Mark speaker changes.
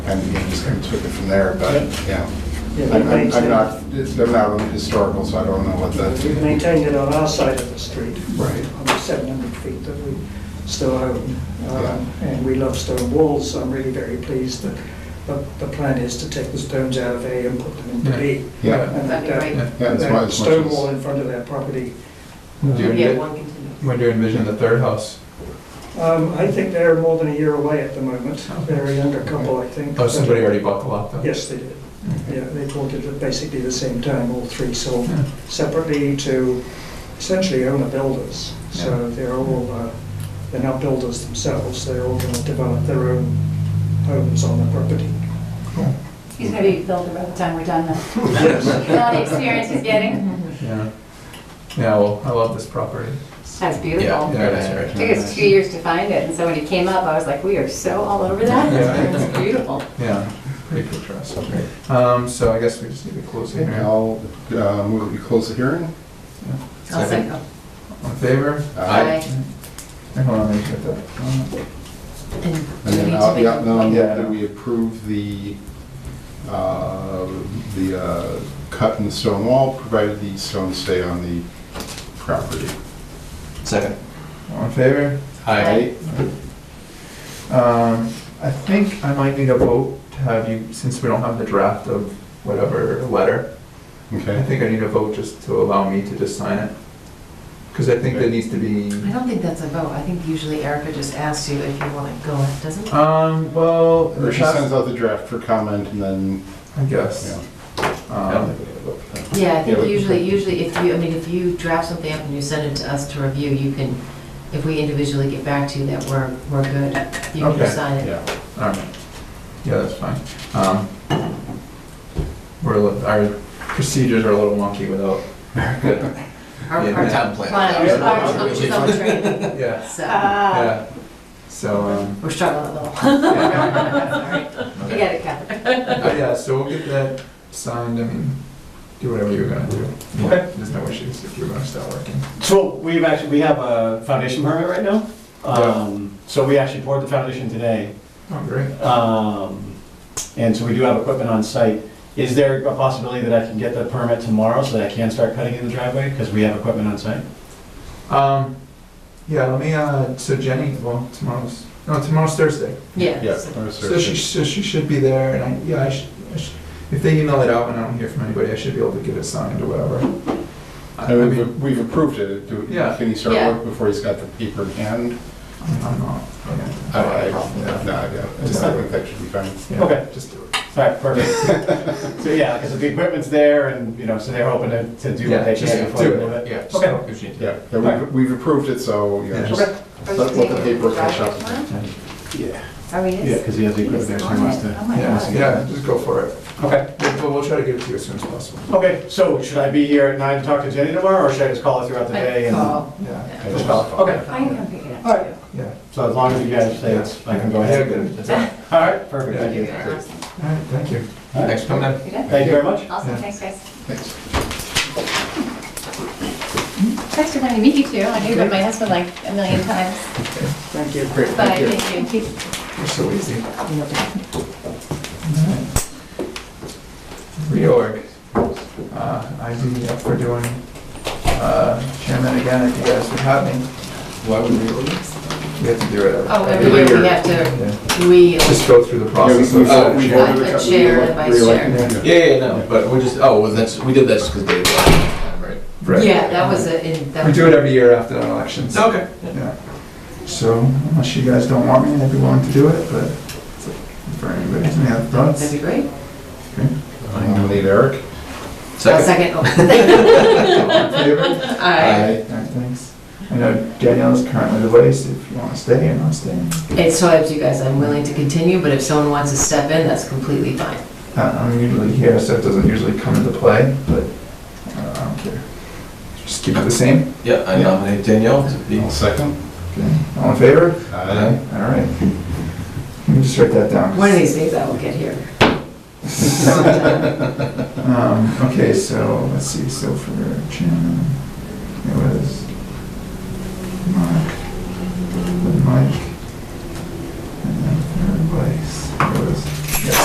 Speaker 1: and you know, just kind of took it from there, but, yeah.
Speaker 2: Yeah, we
Speaker 1: I'm- I'm I'm
Speaker 2: maintain-
Speaker 1: not, I'm not really historical, so I don't know what
Speaker 2: We've
Speaker 1: the,
Speaker 2: maintained it on our side of the street.
Speaker 1: Right.
Speaker 2: On the 700 feet that we still own. Um,
Speaker 1: Yeah.
Speaker 2: And we love stone walls, so I'm really very pleased that the, the plan is to take the stones out of A and put them into B.
Speaker 1: yeah.
Speaker 2: And
Speaker 3: That'd be
Speaker 2: that- uh,
Speaker 3: great.
Speaker 1: Yeah,
Speaker 4: Yeah.
Speaker 1: as much-
Speaker 2: That
Speaker 1: as much
Speaker 2: stone
Speaker 1: as-
Speaker 2: wall in front of their property.
Speaker 4: When do you
Speaker 3: Maybe
Speaker 4: envi-
Speaker 3: at one continuous.
Speaker 4: when do you envision the third house?
Speaker 2: Um, I think they're more than a year away at the moment.
Speaker 1: Oh.
Speaker 4: Okay.
Speaker 2: They're a younger couple, I think.
Speaker 4: Oh, somebody already bought the lot though?
Speaker 2: Yes, they did.
Speaker 4: Okay.
Speaker 2: Yeah, they bought it at basically the same time, all three sold
Speaker 4: Yeah.
Speaker 2: separately to essentially owner builders. So they're all, uh, they're not builders themselves, they're all going to develop their own homes on the property.
Speaker 4: Cool.
Speaker 5: He's gonna be builder by the time we're done though.
Speaker 2: Yes.
Speaker 5: You know the experience he's
Speaker 3: Mm-hmm.
Speaker 5: getting?
Speaker 4: Yeah. Yeah, well, I love this property.
Speaker 5: That's beautiful.
Speaker 4: Yeah, that's right.
Speaker 5: Took us two years to find it, and so when he came up, I was like, we are so all over that.
Speaker 4: Yeah.
Speaker 5: It's beautiful.
Speaker 4: Yeah, pretty picturesque. Um, so I guess we just need to close it
Speaker 1: Okay,
Speaker 4: here.
Speaker 1: I'll uh, move, that we close the hearing. Uh,
Speaker 5: I'll
Speaker 4: Second.
Speaker 5: second.
Speaker 4: All in favor?
Speaker 5: Aye.
Speaker 4: Hold on, let me get that.
Speaker 1: And then, I'll- yeah, then I'll move that we approve the, uh, the uh, cut in the stone wall, provided the stones stay on the property.
Speaker 6: Second.
Speaker 4: All in favor?
Speaker 5: Aye.
Speaker 4: Um, I think I might need a vote to have you, since we don't have the draft of whatever letter. I
Speaker 1: Okay.
Speaker 4: think I need a vote just to allow me to just sign it. Because I think there needs to be,
Speaker 3: I don't think that's a vote. I think usually Erica just asks you if you want to go, doesn't it?
Speaker 4: um, well, in the
Speaker 1: Or she sends
Speaker 4: past,
Speaker 1: out the draft for comment and then,
Speaker 4: I
Speaker 1: yeah.
Speaker 4: guess. Um,
Speaker 1: Yeah, we
Speaker 3: Yeah, I think
Speaker 1: can
Speaker 3: usually,
Speaker 1: print.
Speaker 3: usually if you, I mean, if you draft something up and you send it to us to review, you can, if we individually get back to you that we're, we're good, you can
Speaker 4: Okay.
Speaker 3: just sign it.
Speaker 1: Yeah.
Speaker 4: All right. Yeah, that's fine. Um, We're, a li- our procedures are a little wonky without,
Speaker 3: Our-
Speaker 4: Yeah.
Speaker 3: our
Speaker 6: Town plan.
Speaker 3: planners are
Speaker 6: Yeah.
Speaker 3: self-trained,
Speaker 4: yeah,
Speaker 3: so
Speaker 4: Uh,
Speaker 5: Ah,
Speaker 4: yeah. So, um,
Speaker 3: we're struggling a little.
Speaker 4: yeah.
Speaker 5: You got it covered.
Speaker 4: Uh, yeah, so we'll get that signed, I mean, do whatever you're gonna do.
Speaker 7: Okay.
Speaker 4: There's no issues if you're gonna start working.
Speaker 7: So we've actually, we have a foundation permit right now. Um, So we actually poured the foundation today.
Speaker 4: Oh, great.
Speaker 7: Um, And so we do have equipment on site. Is there a possibility that I can get the permit tomorrow so that I can start cutting in the driveway? Because we have equipment on site.
Speaker 4: Um, yeah, let me, uh, so Jenny, well, tomorrow's, no, tomorrow's Thursday.
Speaker 1: Yeah.
Speaker 3: Yeah,
Speaker 1: or
Speaker 4: So she, so she should be there, and I, yeah, I should, I should, if they email it out and I don't hear from anybody, I should be able to get it signed or whatever. I I
Speaker 1: And
Speaker 4: mean,
Speaker 1: we've, we've approved it. Do-
Speaker 4: Yeah.
Speaker 1: Can he start
Speaker 5: Yeah.
Speaker 1: work before he's got the paper in hand?
Speaker 4: I'm I'm not, okay.
Speaker 1: I, Oh, I,
Speaker 4: Yeah.
Speaker 1: no, I don't- I just I think that should be fine.
Speaker 4: Yeah,
Speaker 7: Okay.
Speaker 4: Just do it.
Speaker 7: All right, perfect. So yeah, because the equipment's there and, you know, so they're hoping to to do
Speaker 4: Yeah,
Speaker 7: what they
Speaker 4: just
Speaker 7: can before
Speaker 4: do
Speaker 7: we move it.
Speaker 4: Yeah, just
Speaker 7: Okay.
Speaker 4: don't- if she-
Speaker 1: Yeah, yeah, we've, we've approved it, so,
Speaker 4: Yeah.
Speaker 1: yeah, just let let the paper catch up. Yeah.
Speaker 5: Are we?
Speaker 7: Yeah, because he has the equipment there, so he wants
Speaker 5: Oh
Speaker 7: to.
Speaker 5: my
Speaker 4: Yeah,
Speaker 5: God.
Speaker 4: yeah, just go for it.
Speaker 7: Okay.
Speaker 4: But we'll try to get it to you as soon as possible.
Speaker 7: Okay, so should I be here at nine to talk to Jenny tomorrow, or should I just call her throughout the day? and-
Speaker 3: Call.
Speaker 4: Yeah,
Speaker 1: I just-
Speaker 7: Okay.
Speaker 5: I can come pick it
Speaker 7: All
Speaker 5: up.
Speaker 7: right.
Speaker 4: yeah.
Speaker 7: So as long as you guys say it's, I can go
Speaker 4: Yeah,
Speaker 7: ahead.
Speaker 4: good.
Speaker 6: That's all.
Speaker 7: All right, perfect, thank you.
Speaker 3: Yeah.
Speaker 4: All right, thank you.
Speaker 7: All right.
Speaker 6: Thanks for coming in.
Speaker 5: You good?
Speaker 7: Thank you very much.
Speaker 5: Awesome,
Speaker 4: Yeah.
Speaker 5: thanks guys.
Speaker 1: Thanks.
Speaker 5: Thanks for letting me meet you too. I knew about my husband like a million times,
Speaker 2: Thank you.
Speaker 5: but thank you.
Speaker 4: You're so easy. Reorg. Uh, I'd be up for doing uh, chairman again if you guys would have me.
Speaker 6: Why would we
Speaker 4: We have to do it.
Speaker 3: Oh, every year we have to,
Speaker 4: Yeah.
Speaker 3: we,
Speaker 4: Just go through the process. of-
Speaker 6: Oh,
Speaker 1: We've
Speaker 6: sure.
Speaker 1: ordered a-
Speaker 3: Uh, chair
Speaker 1: we
Speaker 3: and vice
Speaker 1: re-elected
Speaker 4: chair.
Speaker 1: him.
Speaker 6: Yeah, yeah, no, but we're just, oh, well, that's, we did this because Dave left, right?
Speaker 4: Right.
Speaker 3: yeah, that was a, in- that
Speaker 4: We
Speaker 3: was.
Speaker 4: do it every year after the elections.
Speaker 6: Okay.
Speaker 4: Yeah. So unless you guys don't want me, I'd be willing to do it, but it's up for anybody, any other
Speaker 3: That'd
Speaker 4: thoughts?
Speaker 3: be great.
Speaker 1: I nominate Eric.
Speaker 3: I'll
Speaker 6: Second.
Speaker 3: second. Oh,
Speaker 4: Favor?
Speaker 3: Aye.
Speaker 4: All right, thanks. I know Danielle's currently away, so if you want to stay or not stay.
Speaker 3: It's totally up to you guys. I'm willing to continue, but if someone wants to step in, that's completely fine.
Speaker 4: Uh, I'm usually here, so it doesn't usually come into play, but uh, I don't care. Just keep it the same.
Speaker 6: Yeah, I nominate Danielle to be.
Speaker 1: I'll second.
Speaker 4: Okay. All in favor?
Speaker 1: Aye.
Speaker 4: All right. Let me just write that down.
Speaker 3: One of these days I will get here.
Speaker 4: Um, okay, so let's see. So for chairman, it was my